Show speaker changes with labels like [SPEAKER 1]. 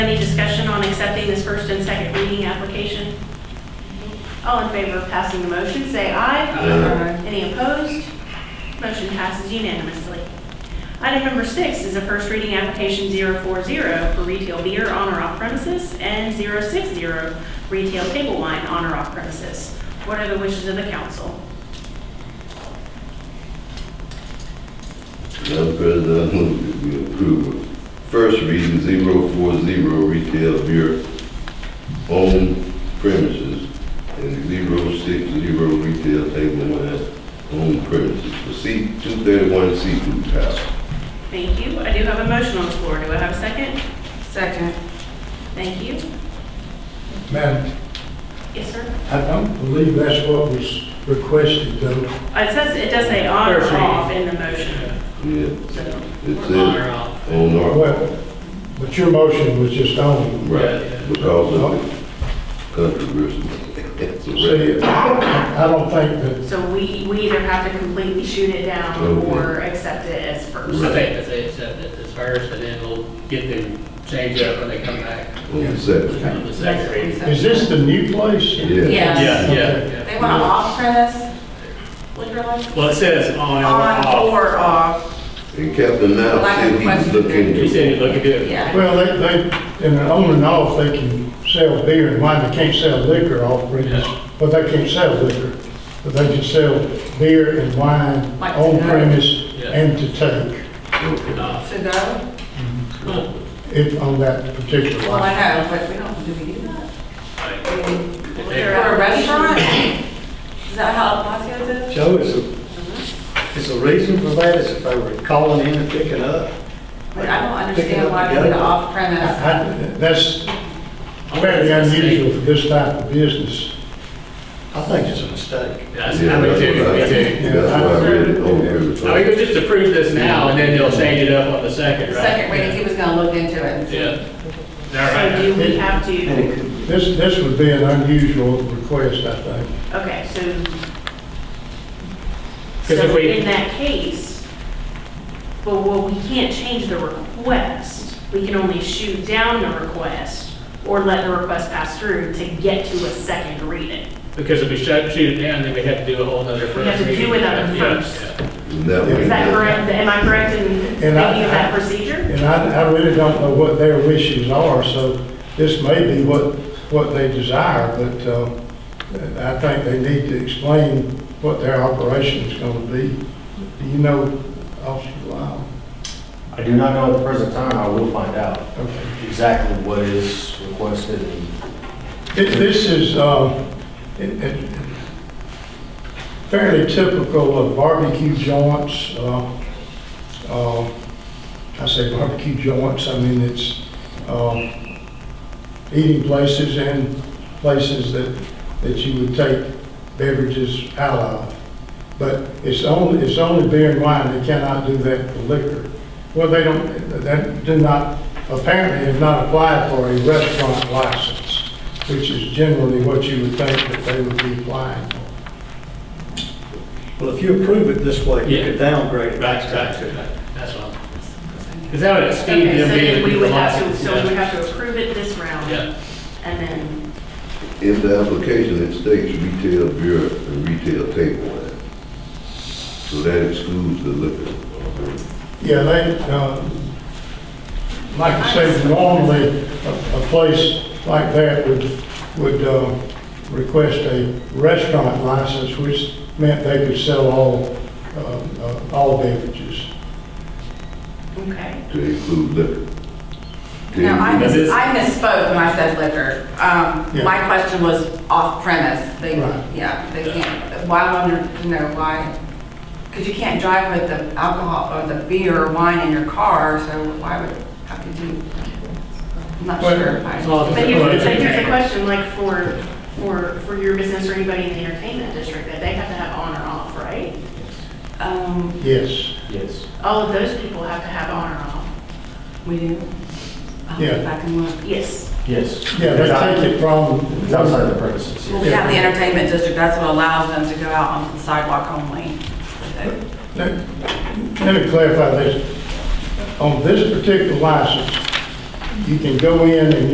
[SPEAKER 1] any discussion on accepting this first and second reading application? All in favor of passing the motion, say aye.
[SPEAKER 2] Aye.
[SPEAKER 1] Any opposed? Motion passes unanimously. Item number six is a first reading application 040 for retail beer on or off premises and 060 retail table wine on or off premises. What are the wishes of the council?
[SPEAKER 2] Madam President, I move that we approve first reading 040 retail beer on premises and 060 retail table wine on premises for C, 231 seafood house.
[SPEAKER 1] Thank you. I do have a motion on the floor. Do I have a second?
[SPEAKER 3] Second.
[SPEAKER 1] Thank you.
[SPEAKER 4] Madam,
[SPEAKER 1] Yes, sir.
[SPEAKER 4] I don't believe that's what was requested, though.
[SPEAKER 1] Uh, It says, it does say on or
[SPEAKER 5] First reading.
[SPEAKER 1] off in the motion.
[SPEAKER 2] Yeah,
[SPEAKER 1] So,
[SPEAKER 2] it
[SPEAKER 5] On
[SPEAKER 2] says
[SPEAKER 5] or off?
[SPEAKER 2] on our,
[SPEAKER 4] Well, but your motion was just on.
[SPEAKER 2] right, because of the controversy. It's a
[SPEAKER 4] See,
[SPEAKER 2] record.
[SPEAKER 4] I don't think that,
[SPEAKER 1] so we, we either have to completely shoot it down
[SPEAKER 2] Okay.
[SPEAKER 1] or accept it as
[SPEAKER 5] I
[SPEAKER 1] first.
[SPEAKER 2] Right.
[SPEAKER 5] think that they accept it as first, and then we'll get them changed up when they come back
[SPEAKER 2] On the second.
[SPEAKER 5] on the second reading.
[SPEAKER 4] is this the new place?
[SPEAKER 2] Yeah.
[SPEAKER 3] Yes.
[SPEAKER 6] Yeah, yeah.
[SPEAKER 3] They want to off premise liquor license?
[SPEAKER 6] Well, it says on or
[SPEAKER 3] On
[SPEAKER 6] off.
[SPEAKER 3] or off,
[SPEAKER 2] And Captain Now
[SPEAKER 3] Lack of
[SPEAKER 2] said he was
[SPEAKER 3] question.
[SPEAKER 2] looking
[SPEAKER 6] He
[SPEAKER 2] to,
[SPEAKER 6] said he'd look at it.
[SPEAKER 3] yeah.
[SPEAKER 4] Well, they, they, in the on and off, they can sell beer and wine, they can't sell liquor off premise, but they can't sell liquor. But they can sell beer and wine
[SPEAKER 3] Like
[SPEAKER 4] on
[SPEAKER 3] tonight.
[SPEAKER 4] premise
[SPEAKER 5] Yeah.
[SPEAKER 4] and to take,
[SPEAKER 2] okay.
[SPEAKER 5] Off.
[SPEAKER 3] To go?
[SPEAKER 4] if, on that particular
[SPEAKER 3] Well, I
[SPEAKER 4] one.
[SPEAKER 3] know, but we don't, do we do that?
[SPEAKER 5] Like, if
[SPEAKER 3] For
[SPEAKER 5] they-
[SPEAKER 3] a restaurant? Is that how Palacios is?
[SPEAKER 7] Joe, is a, is a reason for that is if they were calling in and picking up?
[SPEAKER 3] But I don't
[SPEAKER 7] Picking
[SPEAKER 3] understand
[SPEAKER 7] up
[SPEAKER 3] why
[SPEAKER 7] the
[SPEAKER 3] we do
[SPEAKER 7] goat.
[SPEAKER 3] off premise.
[SPEAKER 4] I- I- That's very unusual for this type of business.
[SPEAKER 7] I think it's a mistake.
[SPEAKER 5] Yeah, I
[SPEAKER 2] Yeah,
[SPEAKER 5] see. I
[SPEAKER 2] that's
[SPEAKER 5] mean, too,
[SPEAKER 2] what I-
[SPEAKER 5] me too.
[SPEAKER 2] That's why I read it over.
[SPEAKER 5] I mean, we'll just approve this now, and then they'll change it up on the second,
[SPEAKER 3] The
[SPEAKER 5] right?
[SPEAKER 3] second reading, he was going to look into it. and see.
[SPEAKER 5] Yeah. All
[SPEAKER 1] So
[SPEAKER 5] right.
[SPEAKER 1] do we have to?
[SPEAKER 7] And it could,
[SPEAKER 4] This, this would be an unusual request, I think.
[SPEAKER 1] Okay, so,
[SPEAKER 5] 'Cause if
[SPEAKER 1] so
[SPEAKER 5] we-
[SPEAKER 1] in that case, well, well, we can't change the request. We can only shoot down the request or let the request pass through to get to a second reading.
[SPEAKER 5] Because if we shut, shoot it down, then we have to do a whole nother first
[SPEAKER 1] We have to do
[SPEAKER 5] reading.
[SPEAKER 1] another
[SPEAKER 5] Yeah,
[SPEAKER 1] first.
[SPEAKER 5] yeah.
[SPEAKER 2] And that way-
[SPEAKER 1] Is that correct? Am I correct in thinking of
[SPEAKER 4] And I-
[SPEAKER 1] that procedure?
[SPEAKER 4] And I, I really don't know what their wishes are, so this may be what, what they desire, but, uh, I think they need to explain what their operation is gonna be. Do you know, Officer Lyle?
[SPEAKER 8] I do not know at the present time, I will find out
[SPEAKER 4] Okay.
[SPEAKER 8] exactly what is requested and
[SPEAKER 4] It- This is uh, it- it- fairly typical of barbecue joints. uh, uh, I say barbecue joints, I mean, it's um, eating places and places that, that you would take beverages out of. But it's only, it's only beer and wine, they cannot do that for liquor. Well, they don't, that do not, apparently have not applied for a restaurant license which is generally what you would think that they would be applying.
[SPEAKER 7] well, if you approve it this way, you
[SPEAKER 5] Yeah.
[SPEAKER 7] could downgrade it.
[SPEAKER 5] Right, right, right. that's all. Is that what it seemed
[SPEAKER 1] Okay,
[SPEAKER 5] to
[SPEAKER 1] so
[SPEAKER 5] be?
[SPEAKER 1] then we
[SPEAKER 5] the
[SPEAKER 1] would have to,
[SPEAKER 5] license,
[SPEAKER 1] so
[SPEAKER 5] yeah.
[SPEAKER 1] we would have to approve it this round.
[SPEAKER 5] Yeah.
[SPEAKER 1] And then,
[SPEAKER 2] In the application, it states retail beer and retail table wine. So that excludes the liquor.
[SPEAKER 4] Yeah, they, uh, like I say, normally, a a place like that would, would uh, request a restaurant license, which meant they could sell all, uh, uh, all beverages.
[SPEAKER 1] okay.
[SPEAKER 2] To include liquor. To
[SPEAKER 3] No, I
[SPEAKER 2] include-
[SPEAKER 3] mis- I misspoke when I said liquor. Um,
[SPEAKER 4] Yeah.
[SPEAKER 3] My question was off premise. They,
[SPEAKER 4] Right.
[SPEAKER 3] yeah, they can't, why, I wonder, you know, why? Because you can't drive with the alcohol or the beer or wine in your car, so why would, how could you? I'm not
[SPEAKER 4] Well,
[SPEAKER 3] sure. if
[SPEAKER 5] as long
[SPEAKER 3] I-
[SPEAKER 5] as-
[SPEAKER 1] But here's, but here's the question, like for, for, for your business or anybody in the entertainment district, that they have to have on or off, right?
[SPEAKER 3] Um,
[SPEAKER 4] Yes,
[SPEAKER 8] yes.
[SPEAKER 1] All of those people have to have on or off.
[SPEAKER 3] We do? I'll go
[SPEAKER 4] Yeah.
[SPEAKER 3] back and look.
[SPEAKER 1] Yes.
[SPEAKER 8] Yes.
[SPEAKER 4] yeah, they take it from,
[SPEAKER 8] It's outside the premises,
[SPEAKER 3] Well,
[SPEAKER 8] yes.
[SPEAKER 3] we have the entertainment district, that's what allows them to go out on the sidewalk only.
[SPEAKER 4] Let let me clarify this. On this particular license, You can go in and